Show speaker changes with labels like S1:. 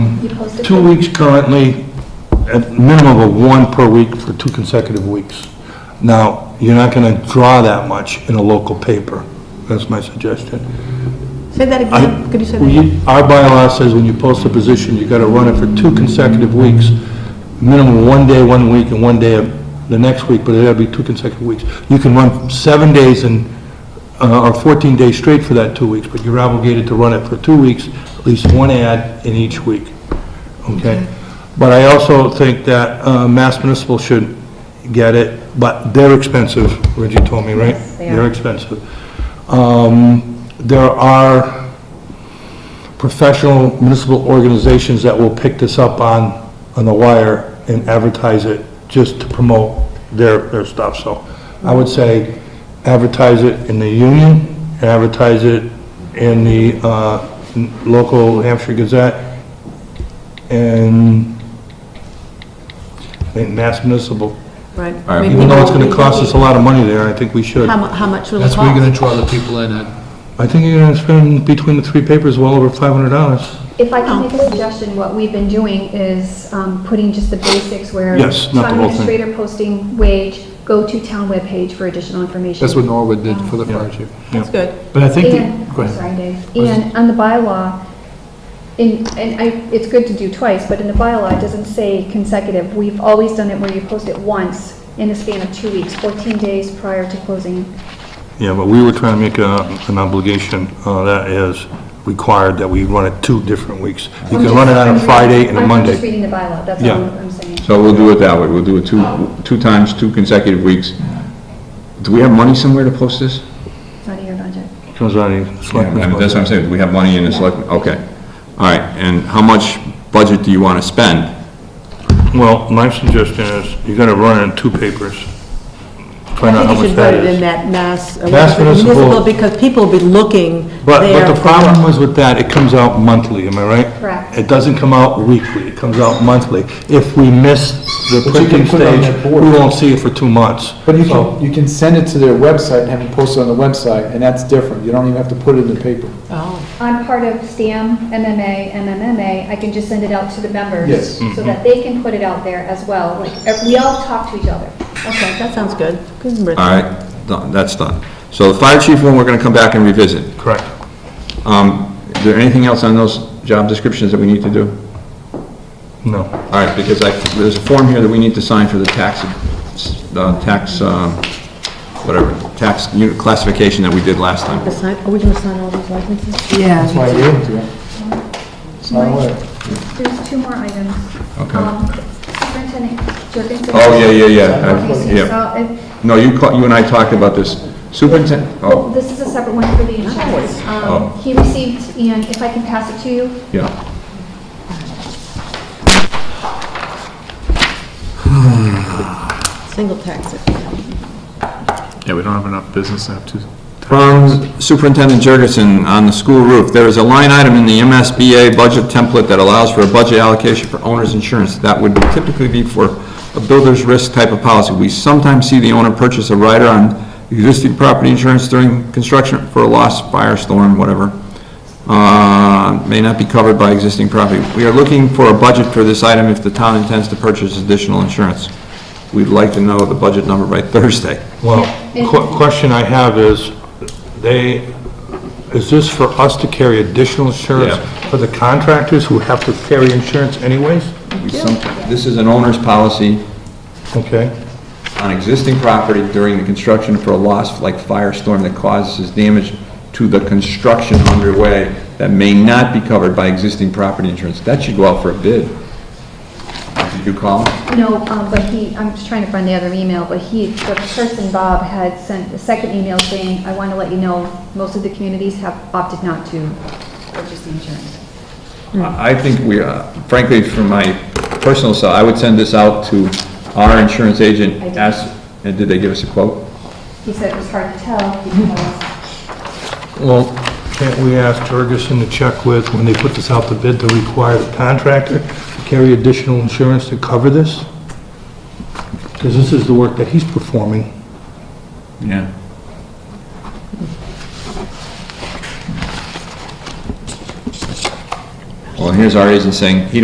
S1: posted?
S2: Two weeks currently, at minimum of one per week for two consecutive weeks. Now, you're not going to draw that much in a local paper. That's my suggestion.
S3: Say that
S2: I-
S3: again, could you say that?
S2: we- Our bylaw says when you post a position, you gotta run it for two consecutive weeks, minimum one day one week and one day of the next week, but it gotta be two consecutive weeks. You can run seven days and, uh, or 14 days straight for that two weeks, but you're obligated to run it for two weeks, at least one ad in each week, okay? But I also think that uh, Mass Municipal should get it, but they're expensive, Reggie told me, right?
S1: Yes, they are.
S2: They're expensive. Um, There are professional municipal organizations that will pick this up on, on the wire and advertise it just to promote their, their stuff. So I would say advertise it in the union, advertise it in the, uh, n- local Hampshire Gazette, and I think Mass Municipal.
S3: Right.
S4: right.
S3: Maybe
S2: Even though it's
S3: people-
S2: gonna cost us a lot of money there, I think we should.
S3: How mu, how much will it
S5: That's where you're gonna
S3: cost?
S5: draw the people in at.
S2: I think you're gonna spend between the three papers well over five hundred dollars.
S1: If I can make a suggestion, what we've been doing is um, putting just the basics where.
S2: Yes, not the whole
S1: Town
S2: thing.
S1: administrator posting wage, go to town webpage for additional information.
S5: That's what Norwood did for the fire chief.
S3: That's good.
S5: But I think,
S1: And,
S5: the- go
S1: I'm
S5: ahead.
S1: sorry, Dave, and on the bylaw, in, and I, it's good to do twice, but in the bylaw, it doesn't say consecutive. We've always done it where you post it once in a span of two weeks, 14 days prior to closing.
S2: Yeah, but we were trying to make a- an obligation uh, that is required that we run it two different weeks. You
S1: I'm
S2: can
S1: just-
S2: run it on
S1: I'm
S2: a
S1: reading-
S2: Friday and a
S1: I'm just
S2: Monday.
S1: reading the bylaw, that's
S2: Yeah.
S1: all I'm saying.
S4: So we'll do it that way, we'll do it two, two times, two consecutive weeks. Do we have money somewhere to post this?
S1: It's not in your budget.
S2: Comes out of the
S4: Yeah, I
S2: selectmen's
S4: mean, That's what I'm
S2: budget.
S4: saying, do we have money in the selectmen? Okay, all right, and how much budget do you want to spend?
S2: Well, my suggestion is, you're gonna run it in two papers. Find
S3: I
S2: out how
S3: think
S2: much
S3: you should put
S2: that
S3: it in
S2: is.
S3: that mass, uh,
S2: Mass municipal.
S3: municipal, because people will be looking
S2: But,
S3: there
S2: but the
S3: for-
S2: problem was with that, it comes out monthly, am I right?
S1: Correct.
S2: It doesn't come out weekly, it comes out monthly. If we miss the
S6: But you
S2: printing
S6: can put it on
S2: stage,
S6: that
S2: we
S6: board.
S2: won't see it for two months.
S6: But you
S2: So-
S6: can, you can send it to their website and have it posted on the website, and that's different. You don't even have to put it in the paper.
S3: Oh,
S1: I'm part of STAM, MMA, MMMA, I can just send it out to the members.
S6: Yes.
S4: Mm-hmm.
S1: So that they can put it out there as well, like, ev- we all talk to each other.
S3: okay, that sounds good. Good, Rich.
S4: All right, done, that's done. So the fire chief one, we're going to come back and revisit.
S2: Correct.
S4: Um, Is there anything else on those job descriptions that we need to do?
S2: No.
S4: All right, because I, there's a form here that we need to sign for the tax, uh, tax, um, whatever, tax unit classification that we did last time.
S3: Assign- Are we gonna sign all these licenses?
S6: That's why I gave it to you. Sign away.
S1: There's two more items.
S4: Okay.
S1: Um, Superintendent Jorgensen.
S4: Oh, yeah, yeah, yeah, I-
S1: Okay,
S4: yeah.
S1: so if-
S4: No, you, ca- you and I talked about this. Superintendent,
S1: Well,
S4: oh,
S1: this is a separate one for the insurance.
S4: Oh.
S1: Um, He received, and if I can pass it to you,
S4: yeah.
S3: Single tax.
S7: Yeah, we don't have enough business to have two.
S4: From Superintendent Jurgensen on the school roof, there is a line item in the MSBA budget template that allows for a budget allocation for owner's insurance. That would typically be for a builder's risk type of policy. We sometimes see the owner purchase a rider on existing property insurance during construction for a loss, fire, storm, whatever. Uh, May not be covered by existing property. We are looking for a budget for this item if the town intends to purchase additional insurance. We'd like to know the budget number by Thursday.
S2: Well,
S1: Yeah,
S2: que-
S1: and-
S2: question I have is, they, is this for us to carry additional insurance
S4: Yeah.
S2: for the contractors who have to carry insurance anyways?
S4: We sometime- This is an owner's policy
S2: Okay,
S4: on existing property during the construction for a loss like firestorm that causes damage to the construction underway that may not be covered by existing property insurance. That should go out for a bid. Did you call?
S1: no, um, but he, I'm just trying to find the other email, but he, the person, Bob, had sent a second email saying, I want to let you know, most of the communities have opted not to purchase the insurance. Mm-hmm.
S4: I I think we, uh, frankly, from my personal side, I would send this out to our insurance agent,
S1: I did.
S4: ask, and did they give us a quote?
S1: He said it was hard to tell because
S2: well, can't we ask Ferguson to check with, when they put this out to bid, to require the contractor to carry additional insurance to cover this? Because this is the work that he's performing.
S4: Yeah. Well, here's our agent saying, he